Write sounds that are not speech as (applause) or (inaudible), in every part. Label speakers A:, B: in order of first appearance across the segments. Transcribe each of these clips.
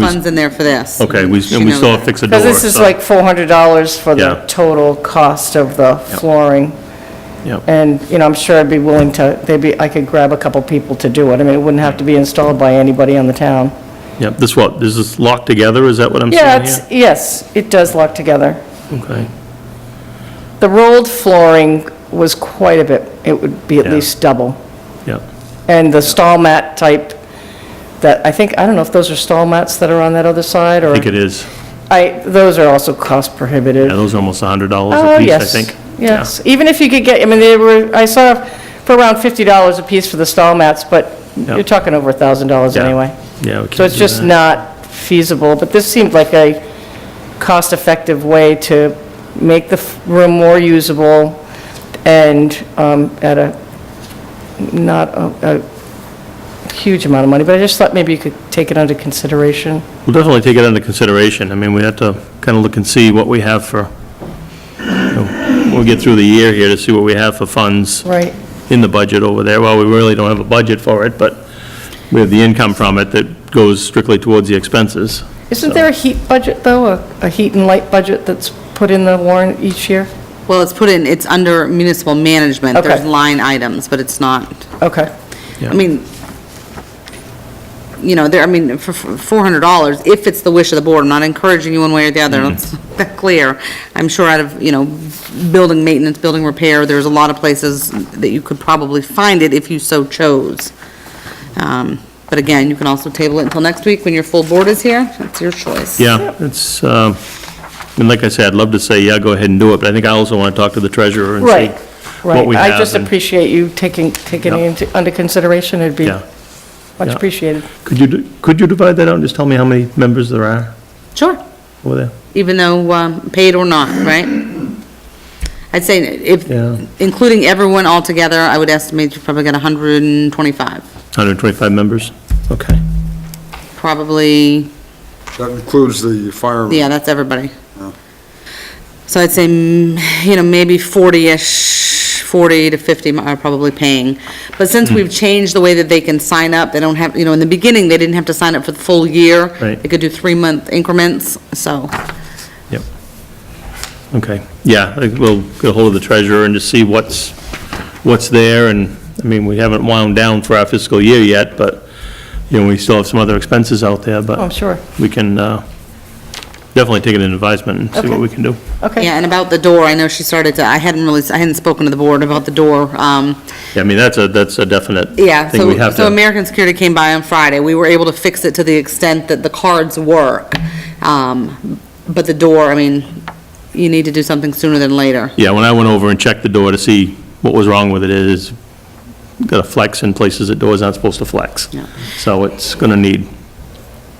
A: funds in there for this.
B: Okay, we,
A: She
B: and we
A: knows
B: still
A: that.
B: fix a door.
C: Because this is
B: so-
C: like $400 for
B: Yeah.
C: the total cost of the flooring.
B: Yep.
C: And, you know, I'm sure I'd be willing to, they'd be, I could grab a couple people to do it. I mean, it wouldn't have to be installed by anybody in the town.
B: Yep, this what, this is locked together, is that what I'm
C: Yeah,
B: saying
C: it's,
B: here?
C: yes, it does lock together.
B: Okay,
C: The rolled flooring was quite a bit, it would be at
B: Yeah.
C: least double.
B: yep,
C: And the stall mat type, that, I think, I don't know if those are stall mats that are on that other side,
B: I
C: or,
B: think it is.
C: I, those are also cost prohibitive.
B: Yeah, those are almost a hundred dollars
C: Oh
B: a piece, I
C: yes,
B: think.
C: Yes, even if you could get, I mean, they were, I saw for around $50 a piece for the stall mats, but
B: Yeah.
C: you're talking over $1,000
B: Yeah.
C: anyway.
B: Yeah, we
C: So
B: can't
C: it's
B: do
C: just
B: that.
C: not feasible, but this seemed like a cost-effective way to make the f- room more usable and um, at a, not a a huge amount of money, but I just thought maybe you could take it under consideration.
B: We'll definitely take it under consideration. I mean, we have to kind of look and see what we have for, you know, we'll get through the year here to see what we have for funds
C: Right.
B: in the budget over there. Well, we really don't have a budget for it, but we have the income from it that goes strictly towards the expenses.
C: Isn't there a heat budget, though, a a heat and light budget that's put in the warrant each year?
A: Well, it's put in, it's under municipal management.
C: Okay.
A: There's line items, but it's not,
C: Okay.
B: Yeah.
A: I mean, you know, there, I mean, for for $400, if it's the wish of the board, I'm not encouraging you one way or the
B: Mm-hmm.
A: other, it's (laughs) that clear. I'm sure out of, you know, building maintenance, building repair, there's a lot of places that you could probably find it if you so chose. Um, But again, you can also table it until next week when your full board is here. That's your choice.
B: Yeah, it's, um, and like I said, I'd love to say, yeah, go ahead and do it, but I think I also want to talk to the treasurer and see
C: Right,
B: what
C: right.
B: we have.
C: I just
B: and-
C: appreciate you taking, taking
B: Yeah.
C: it into- under consideration. It'd be
B: Yeah.
C: much
B: yeah.
C: appreciated.
B: Could you, do- could you divide that out and just tell me how many members there are
A: Sure.
B: over there?
A: even though um, paid or not, right? I'd say if,
B: Yeah.
A: including everyone altogether, I would estimate you probably got 125,
B: 125 members? Okay.
A: probably,
D: That includes the fire.
A: yeah, that's everybody.
D: Yeah.
A: So I'd say, mm, you know, maybe 40-ish, 40 to 50 are probably paying. But since we've changed the way that they can sign up, they don't have, you know, in the beginning, they didn't have to sign up for the full year.
B: Right.
A: They could do three-month increments, so.
B: Yep. Okay, yeah, I think we'll get hold of the treasurer and just see what's, what's there, and, I mean, we haven't wound down for our fiscal year yet, but, you know, we still have some other expenses out there, but.
C: Oh, I'm sure.
B: We can uh, definitely take it in advisement and see what we can do.
C: Okay.
A: Yeah, and about the door, I know she started to, I hadn't really, I hadn't spoken to the board about the door. Um,
B: Yeah, I mean, that's a, that's a definite
A: yeah,
B: thing we
A: so,
B: have
A: so
B: to.
A: American Security came by on Friday. We were able to fix it to the extent that the cards work. Um, but the door, I mean, you need to do something sooner than later.
B: Yeah, when I went over and checked the door to see what was wrong with it, it is, got a flex in places that doors aren't supposed to flex.
A: Yeah.
B: So it's going to need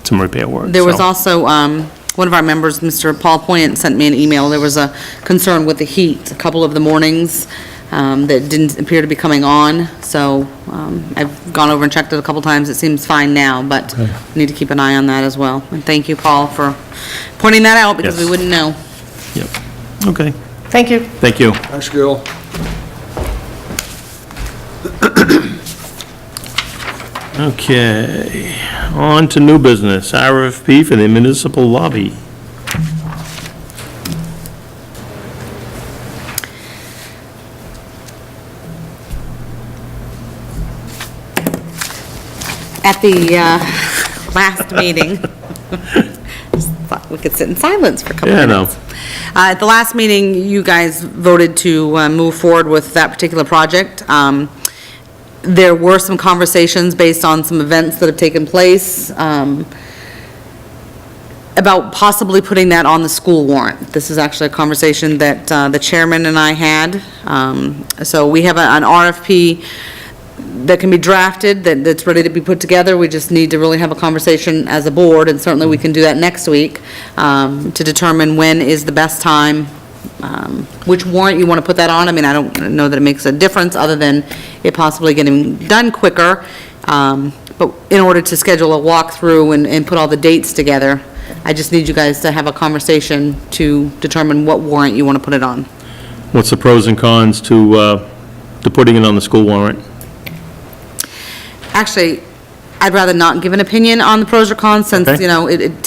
B: some repair work.
A: There was
B: so.
A: also, um, one of our members, Mr. Paul Poynt, sent me an email. There was a concern with the heat, a couple of the mornings, um, that didn't appear to be coming on. So, um, I've gone over and checked it a couple times. It seems fine now, but need to keep an eye on that as well. And thank you, Paul, for pointing that out because we
B: Yes.
A: wouldn't know.
B: Yep. Okay,
C: Thank you.
B: thank you.
D: Thanks, Gil.
B: Okay, on to new business, RFP for the municipal lobby.
A: At the, uh, (laughs) last meeting, (laughs) just thought we could sit in silence for a couple
B: Yeah, I
A: minutes.
B: know.
A: Uh, At the last meeting, you guys voted to uh, move forward with that particular project. Um, There were some conversations based on some events that have taken place um, about possibly putting that on the school warrant. This is actually a conversation that uh, the chairman and I had. Um, So we have a- an RFP that can be drafted, that, that's ready to be put together. We just need to really have a conversation as a board, and certainly we can do that next week, um, to determine when is the best time, um, which warrant you want to put that on. I mean, I don't know that it makes a difference, other than it possibly getting done quicker. Um, But in order to schedule a walkthrough and, and put all the dates together, I just need you guys to have a conversation to determine what warrant you want to put it on.
B: What's the pros and cons to, uh, to putting it on the school warrant?
A: Actually, I'd rather not give an opinion on the pros or cons since,
B: Okay.
A: you know, it, it